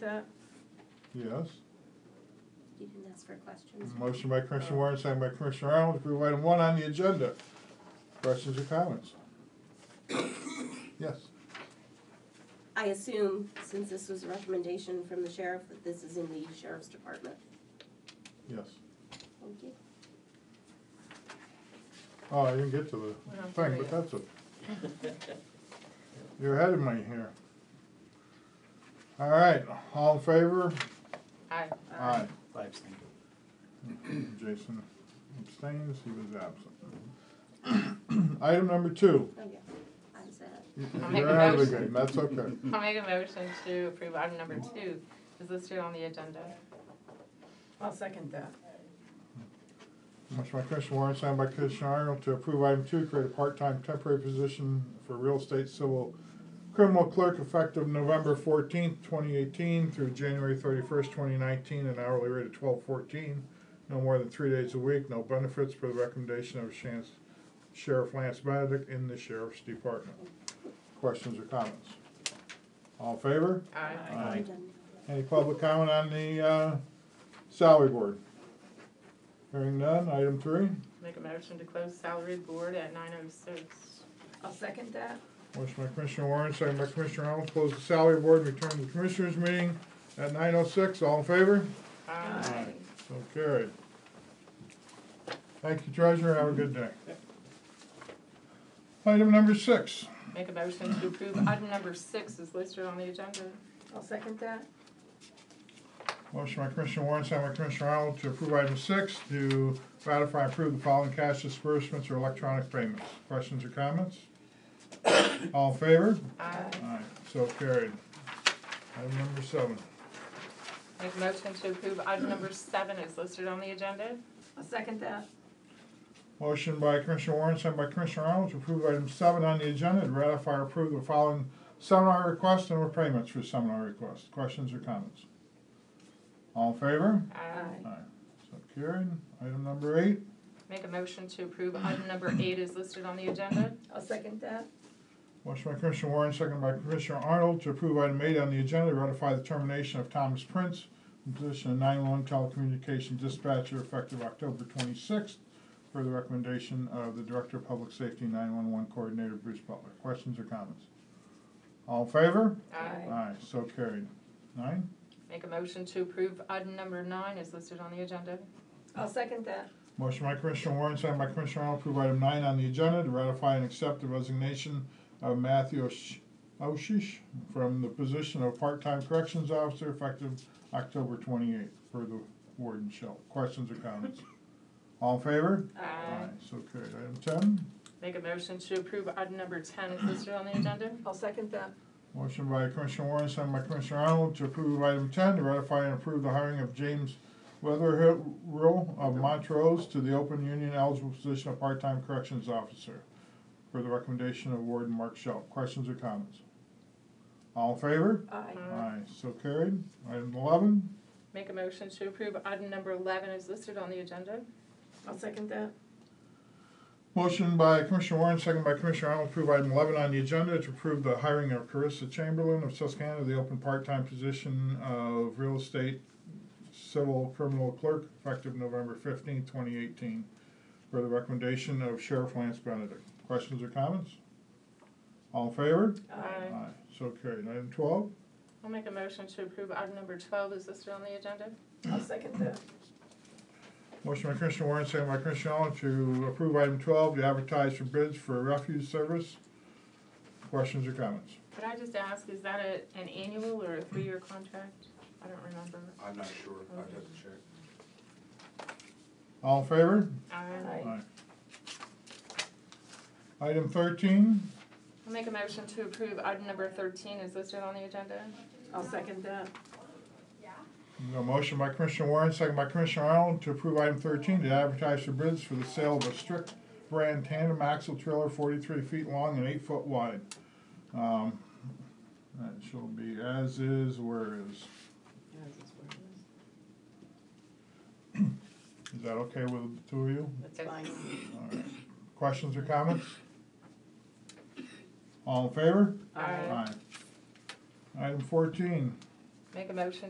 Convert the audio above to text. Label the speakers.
Speaker 1: That,
Speaker 2: Yes.
Speaker 3: You didn't ask for questions.
Speaker 2: Motion by Commissioner Warren, signed by Commissioner Arnold, to approve item one on the agenda. Questions or comments? Yes.
Speaker 3: I assume, since this was a recommendation from the sheriff, that this is in the sheriff's department.
Speaker 2: Yes.
Speaker 3: Thank you.
Speaker 2: Oh, I didn't get to
Speaker 1: Well,
Speaker 2: the thing,
Speaker 1: hurry
Speaker 2: but
Speaker 1: up.
Speaker 2: that's it. You're ahead of me here. All right, all in favor?
Speaker 1: I,
Speaker 2: Aye.
Speaker 4: I abstain.
Speaker 2: Jason abstains, he was absent. Item number two.
Speaker 3: Oh, yeah. I was at,
Speaker 1: I'll make a
Speaker 2: You're out of the
Speaker 1: motion.
Speaker 2: game, that's okay.
Speaker 1: I'll make a motion to approve item number two is listed on the agenda. I'll second that.
Speaker 2: Motion by Commissioner Warren, signed by Commissioner Arnold, to approve item two, create a part-time temporary position for real estate civil criminal clerk effective November fourteenth, twenty eighteen through January thirty-first, twenty nineteen, an hourly rate of twelve fourteen, no more than three days a week, no benefits per the recommendation of Shan- Sheriff Lance Benedict in the Sheriff's Department. Questions or comments? All in favor?
Speaker 1: Aye.
Speaker 3: I'm done now.
Speaker 2: Any public comment on the, uh, salary board? Hearing none, item three.
Speaker 1: Make a motion to close salary board at nine oh six. I'll second that.
Speaker 2: Motion by Commissioner Warren, second by Commissioner Arnold, close the salary board, and return to the commissioners meeting at nine oh six, all in favor?
Speaker 1: Aye.
Speaker 2: So carried. Thank you, treasurer, have a good day. Item number six,
Speaker 1: Make a motion to approve item number six is listed on the agenda. I'll second that.
Speaker 2: motion by Commissioner Warren, second by Commissioner Arnold, to approve item six, to ratify and approve the following cash disbursements or electronic payments. Questions or comments? All in favor?
Speaker 1: Aye.
Speaker 2: Aye, so carried. Item number seven.
Speaker 1: Make a motion to approve item number seven is listed on the agenda. I'll second that.
Speaker 2: Motion by Commissioner Warren, sent by Commissioner Arnold, to approve item seven on the agenda, to ratify or approve the following seminar requests and repayments for seminar requests. Questions or comments? All in favor?
Speaker 1: Aye.
Speaker 2: Aye. So carried. Item number eight.
Speaker 1: Make a motion to approve item number eight is listed on the agenda.
Speaker 5: I'll second that.
Speaker 2: Motion by Commissioner Warren, second by Commissioner Arnold, to approve item eight on the agenda, to ratify the termination of Thomas Prince from position of nine-one telecommunication dispatcher effective October twenty-sixth, per the recommendation of the Director of Public Safety nine-one-one Coordinator Bruce Butler. Questions or comments? All in favor?
Speaker 1: Aye.
Speaker 2: Aye, so carried. Nine?
Speaker 1: Make a motion to approve item number nine is listed on the agenda.
Speaker 5: I'll second that.
Speaker 2: Motion by Commissioner Warren, second by Commissioner Arnold, approve item nine on the agenda to ratify and accept the resignation of Matthew Osh- Oshish from the position of part-time corrections officer effective October twenty-eighth for the warden shell. Questions or comments? All in favor?
Speaker 1: Aye.
Speaker 2: So carried. Item ten,
Speaker 1: Make a motion to approve item number ten is listed on the agenda.
Speaker 5: I'll second that.
Speaker 2: motion by Commissioner Warren, second by Commissioner Arnold to approve item ten to ratify and approve the hiring of James Weatherhill of Montrose to the open union eligible position of part-time corrections officer for the recommendation of Warden Mark Schell. Questions or comments? All in favor?
Speaker 5: Aye.
Speaker 2: Aye, so carried. Item eleven,
Speaker 1: Make a motion to approve item number eleven is listed on the agenda.
Speaker 5: I'll second that.
Speaker 2: motion by Commissioner Warren, second by Commissioner Arnold, to approve item eleven on the agenda to approve the hiring of Carissa Chamberlain of Susquehanna, to the open part-time position of real estate civil criminal clerk effective November fifteenth, twenty eighteen, for the recommendation of Sheriff Lance Benedict. Questions or comments? All in favor?
Speaker 1: Aye.
Speaker 2: Aye, so carried. Item twelve,
Speaker 1: I'll make a motion to approve item number twelve is listed on the agenda.
Speaker 5: I'll second that.
Speaker 2: Motion by Commissioner Warren, second by Commissioner Arnold to approve item twelve, to advertise for bids for refuse service. Questions or comments?
Speaker 1: Could I just ask, is that a, an annual or a three-year contract? I don't remember.
Speaker 6: I'm not sure, I'd have to check.
Speaker 2: All in favor?
Speaker 1: Aye.
Speaker 5: Aye.
Speaker 2: Item thirteen,
Speaker 1: I'll make a motion to approve item number thirteen is listed on the agenda.
Speaker 5: I'll second that.
Speaker 2: a motion by Commissioner Warren, second by Commissioner Arnold to approve item thirteen, to advertise for bids for the sale of a strict brand tandem axle trailer forty-three feet long and eight foot wide. Um, That shall be as is, where is. Is that okay with the two of you?
Speaker 1: That's fine.
Speaker 2: All right. Questions or comments? All in favor?
Speaker 1: Aye.
Speaker 2: Item fourteen,
Speaker 1: Make a motion